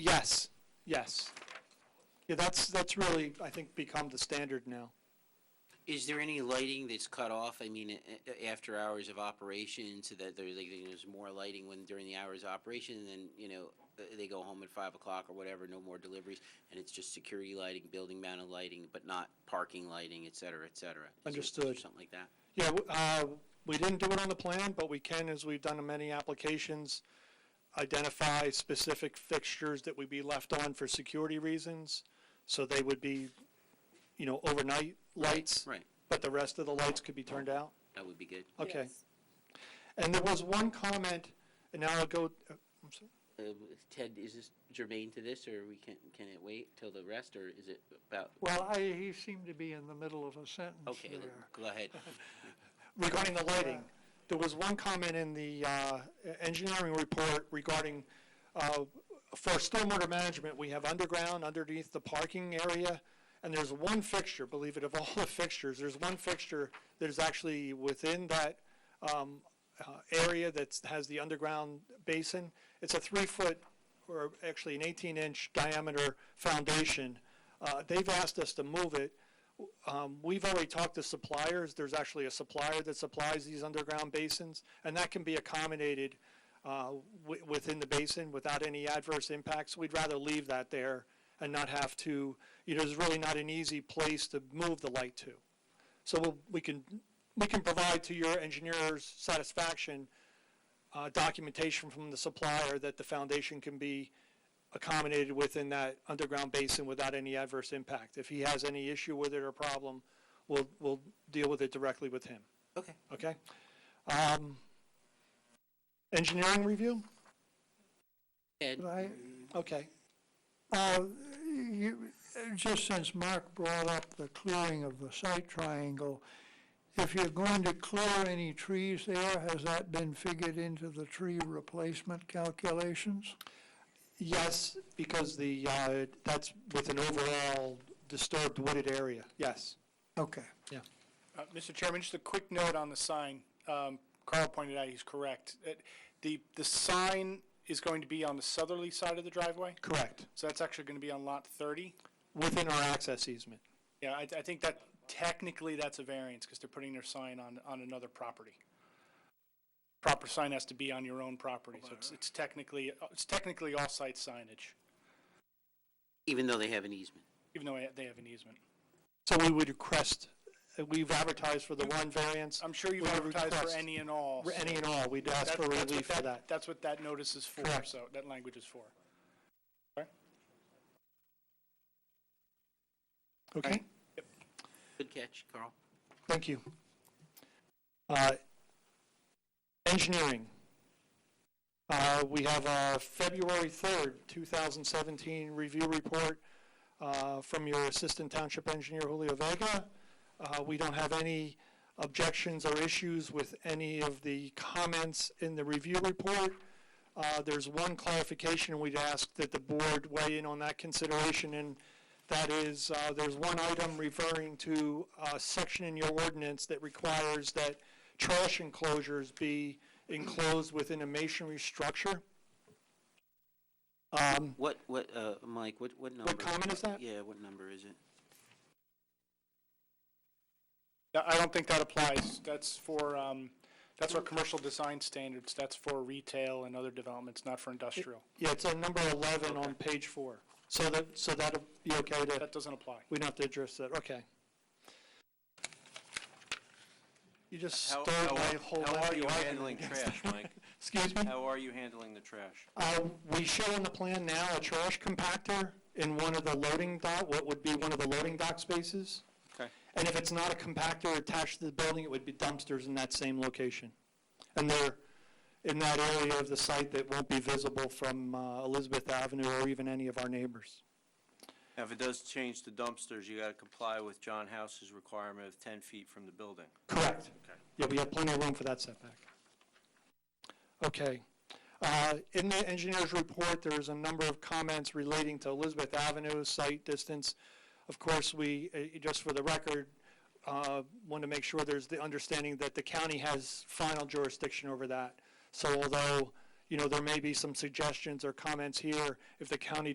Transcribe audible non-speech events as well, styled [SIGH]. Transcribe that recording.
Yes, yes. Yeah, that's, that's really, I think, become the standard now. Is there any lighting that's cut off, I mean, a- a- after hours of operation, so that there's, like, there's more lighting when, during the hours of operation, and then, you know, uh, they go home at five o'clock or whatever, no more deliveries, and it's just security lighting, building mounted lighting, but not parking lighting, et cetera, et cetera? Is there- is there Understood. Something like that? Yeah, w- uh, we didn't do it on the plan, but we can, as we've done in many applications, identify specific fixtures that would be left on for security reasons. So they would be, you know, overnight lights, Right, but the rest of the lights could be turned out. that would be good. Okay. Yes. And there was one comment, and now I'll go, uh, I'm sorry. Uh, Ted, is this germane to this, or we can, can it wait till the rest, or is it about, Well, I, he seemed to be in the middle of a sentence okay, then there. go [LAUGHS] ahead. regarding the lighting, there was one comment in the uh, engineering report regarding, uh, for stormwater management, we have underground underneath the parking area, and there's one fixture, believe it, of all the fixtures, there's one fixture that is actually within that um, uh, area that has the underground basin. It's a three-foot, or actually an 18-inch diameter foundation. Uh, They've asked us to move it um, we've already talked to suppliers, there's actually a supplier that supplies these underground basins, and that can be accommodated, uh, wi- within the basin without any adverse impacts. We'd rather leave that there and not have to, you know, there's really not an easy place to move the light to. So we'll, we can, we can provide to your engineer's satisfaction, uh, documentation from the supplier that the foundation can be accommodated within that underground basin without any adverse impact. If he has any issue with it or problem, we'll, we'll deal with it directly with him, Okay. okay? Um, Engineering review? Ted, Right? Okay, Uh, you- Just since Mark brought up the clearing of the site triangle, if you're going to clear any trees there, has that been figured into the tree replacement calculations? yes, because the, uh, that's with an overall disturbed wooded area, yes. Okay. Uh, Mr. Chairman, just a quick note on the sign. Um, Carl pointed out he's correct. It- The, the sign is going to be on the southerly side of the driveway, Correct, so that's actually going to be on lot 30. within our access easement. Yeah, I, I think that technically that's a variance because they're putting their sign on, on another property. Proper sign has to be on your own property, so it's, it's technically, it's technically off-site signage, even though they have an easement? even though they have an easement. So we would request, uh, we've advertised for the one variance, I'm sure you've We advertised for request- any and all. so any and all, we'd ask that- for that's what relief for that. That's what that notice is for, Correct. so that language is for. Okay, Good catch, Carl. thank you. Uh, Engineering. Uh, We have a February 3rd, 2017 review report uh, from your Assistant Township Engineer Julio Vega. Uh, We don't have any objections or issues with any of the comments in the review report. Uh, There's one clarification we'd ask that the board weigh in on that consideration, and that is, uh, there's one item referring to a section in your ordinance that requires that trash enclosures be enclosed within a masonry structure. Um, What, what, uh, Mike, what, what number? comment is that? Yeah, what number is it? No, I don't think that applies. That's for, um, that's our commercial design standards. That's for retail and other developments, not for industrial. Yeah, it's on number 11 on page four. So that, so that'll be okay to, That doesn't apply. we don't have to address that, okay. You just How, stole how, my are- whole. how are last you argument [LAUGHS] handling against- trash, Mike? Excuse me? How are you handling the trash? Uh, We show on the plan now a trash compactor in one of the loading dock, what would be one of the loading dock spaces. Okay. And if it's not a compactor attached to the building, it would be dumpsters in that same location. And they're in that area of the site that won't be visible from uh, Elizabeth Avenue or even any of our neighbors. Now, if it does change to dumpsters, you gotta comply with John House's requirement of ten feet from the building. Correct. Okay. Yeah, we have plenty of room for that setback. Okay. Uh, In the engineer's report, there is a number of comments relating to Elizabeth Avenue, site distance. Of course, we, uh, just for the record, want to make sure there's the understanding that the county has final jurisdiction over that. So although, you know, there may be some suggestions or comments here, if the county